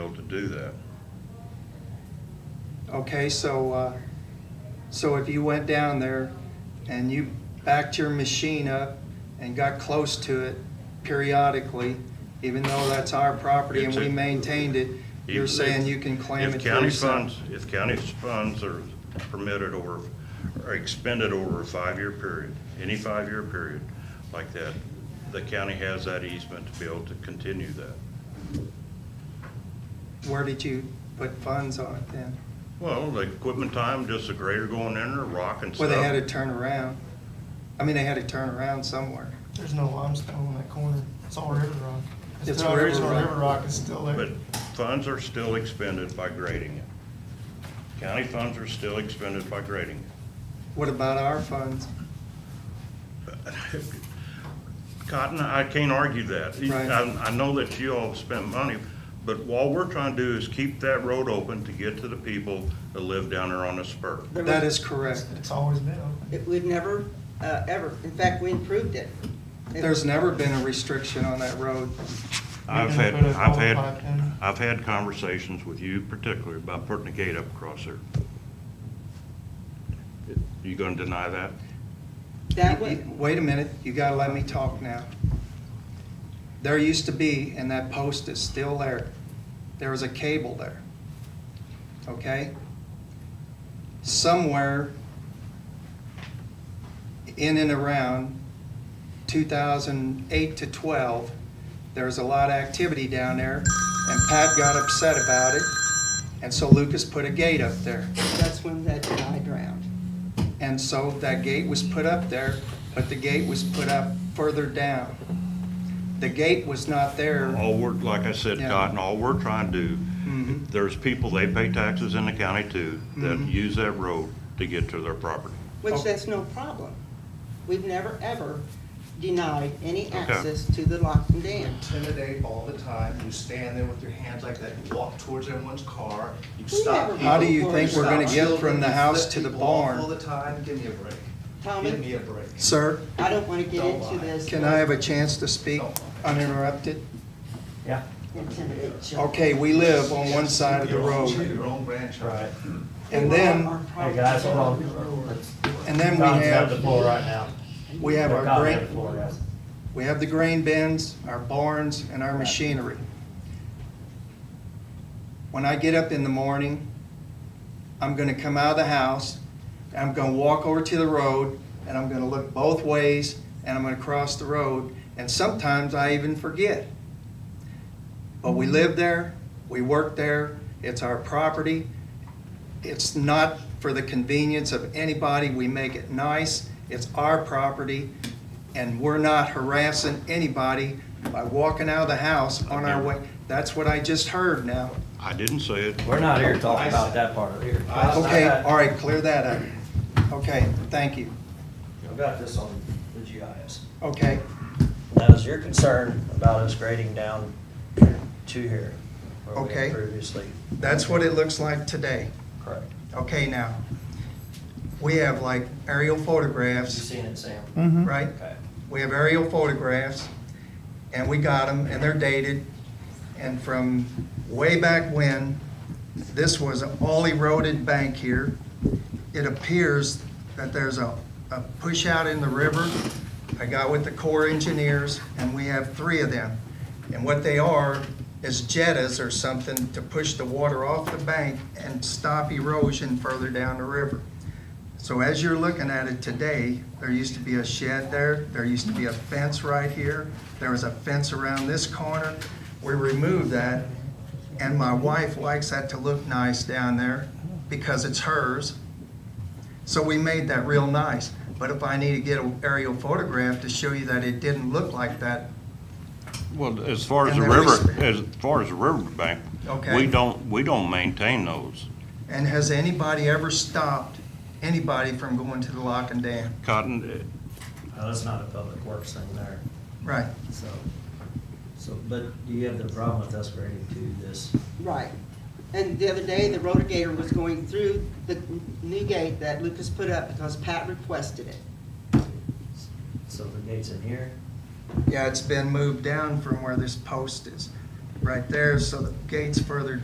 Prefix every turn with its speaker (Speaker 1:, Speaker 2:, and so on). Speaker 1: do that.
Speaker 2: Okay, so, uh, so if you went down there and you backed your machine up and got close to it periodically, even though that's our property and we
Speaker 1: It's a-
Speaker 2: maintained it, you're saying you can claim it
Speaker 1: If
Speaker 2: for
Speaker 1: county
Speaker 2: yourself?
Speaker 1: funds, if county funds are permitted over, or expended over a five-year period, any five-year period like that, the county has that easement to be able to continue that.
Speaker 2: Where did you put funds on it then?
Speaker 1: Well, the equipment time, just a grader going in there, rock and
Speaker 2: Well,
Speaker 1: stuff.
Speaker 2: they had to turn around. I mean, they had to turn around somewhere.
Speaker 3: There's no limestone in that corner. It's all river rock.
Speaker 2: It's
Speaker 3: still-
Speaker 2: river
Speaker 3: Original
Speaker 2: rock.
Speaker 3: river rock is still there.
Speaker 1: But funds are still expended by grading it. County funds are still expended by grading it.
Speaker 2: What about our funds?
Speaker 1: Cotton, I can't argue that.
Speaker 2: Right.
Speaker 1: I, I know that you all spent money, but all we're trying to do is keep that road open to get to the people that live down there on the spur.
Speaker 4: There
Speaker 2: That
Speaker 4: was-
Speaker 2: is correct.
Speaker 3: It's always been open.
Speaker 4: it- We've never, uh, ever, in fact, we improved it. It-
Speaker 2: There's never been a restriction on that road.
Speaker 1: I've
Speaker 3: Maybe
Speaker 1: had,
Speaker 3: they put a
Speaker 1: I've
Speaker 3: qualified
Speaker 1: had,
Speaker 3: in.
Speaker 1: I've had conversations with you particularly about putting a gate up across there. You gonna deny that?
Speaker 4: That
Speaker 2: You-
Speaker 4: was,
Speaker 2: you- Wait a minute, you gotta let me talk now. There used to be, and that post is still there, there was a cable there. Okay? Somewhere in and around 2008 to 12, there was a lot of activity down there, and Pat got upset about it, and so Lucas put a gate up there.
Speaker 4: that's when that guy drowned.
Speaker 2: And so that gate was put up there, but the gate was put up further down. The gate was not there.
Speaker 1: All we're, like I said,
Speaker 2: Yeah.
Speaker 1: Cotton, all we're trying to do,
Speaker 2: Mhm.
Speaker 1: there's people, they pay taxes in the county too, that use that road to get to their property.
Speaker 2: Oh.
Speaker 4: Which that's no problem. We've never, ever denied any access to the Lockton Dam.
Speaker 5: intimidate all the time. You stand there with your hands like that, you walk towards everyone's car, you
Speaker 4: We
Speaker 5: stop
Speaker 4: never-
Speaker 5: people.
Speaker 2: How do you think we're
Speaker 5: stop
Speaker 2: gonna get
Speaker 5: children,
Speaker 2: from the
Speaker 5: you
Speaker 2: house
Speaker 5: flip
Speaker 2: to the
Speaker 5: people off
Speaker 2: barn?
Speaker 5: All the time, give me a break. Give me
Speaker 4: Tommy,
Speaker 5: a break.
Speaker 2: Sir,
Speaker 4: I don't want to get
Speaker 5: Don't
Speaker 4: into
Speaker 5: lie.
Speaker 4: this.
Speaker 2: can I have a chance to speak
Speaker 5: No.
Speaker 2: uninterrupted?
Speaker 6: Yeah.
Speaker 4: Intimidate children.
Speaker 2: Okay, we live on one side of the
Speaker 5: Your own chi-
Speaker 2: road.
Speaker 5: Your own grandchild.
Speaker 2: And
Speaker 4: We
Speaker 2: then-
Speaker 4: want our
Speaker 6: Hey, guys, hold on.
Speaker 4: property.
Speaker 2: And then we
Speaker 6: Don's got the
Speaker 2: have,
Speaker 6: floor right now.
Speaker 2: we have our
Speaker 6: Don's got the
Speaker 2: grain,
Speaker 6: floor, guys.
Speaker 2: we have the grain bins, our barns, and our machinery. When I get up in the morning, I'm gonna come out of the house, and I'm gonna walk over to the road, and I'm gonna look both ways, and I'm gonna cross the road, and sometimes I even forget. But we live there, we work there, it's our property. It's not for the convenience of anybody, we make it nice, it's our property, and we're not harassing anybody by walking out of the house on our way. That's what I just heard now.
Speaker 1: I didn't say it.
Speaker 6: We're not here talking about that part over here.
Speaker 5: I-
Speaker 2: Okay, all right, clear that up. Okay, thank you.
Speaker 6: I've got this on the GIS.
Speaker 2: Okay,
Speaker 6: That was your concern about us grading down to here. where we had
Speaker 2: Okay.
Speaker 6: Previously,
Speaker 2: that's what it looks like today.
Speaker 6: correct.
Speaker 2: Okay, now, we have like aerial
Speaker 6: You
Speaker 2: photographs,
Speaker 6: seen it, Sam?
Speaker 2: right?
Speaker 6: Okay.
Speaker 2: We have aerial photographs, and we got them, and they're dated. And from way back when, this was an all eroded bank here. It appears that there's a, a push out in the river. I got with the Corps engineers, and we have three of them. And what they are is jettas or something to push the water off the bank and stop erosion further down the river. So as you're looking at it today, there used to be a shed there, there used to be a fence right here, there was a fence around this corner. We removed that, and my wife likes that to look nice down there because it's hers. So we made that real nice. But if I need to get an aerial photograph to show you that it didn't look like that,
Speaker 1: Well, as far as
Speaker 2: And
Speaker 1: the
Speaker 2: there was-
Speaker 1: river, as far as the riverbank,
Speaker 2: Okay.
Speaker 1: we don't, we don't maintain those.
Speaker 2: and has anybody ever stopped anybody from going to the lock and dam?
Speaker 1: Cotton,
Speaker 6: Now, that's not a public works thing there,
Speaker 2: Right.
Speaker 6: so. So, but you have the problem with us grading to this.
Speaker 4: Right. And the other day, the rotogator was going through the new gate that Lucas put up because Pat requested it.
Speaker 6: So the gate's in here.
Speaker 2: Yeah, it's been moved down from where this post is, right there, so the gate's further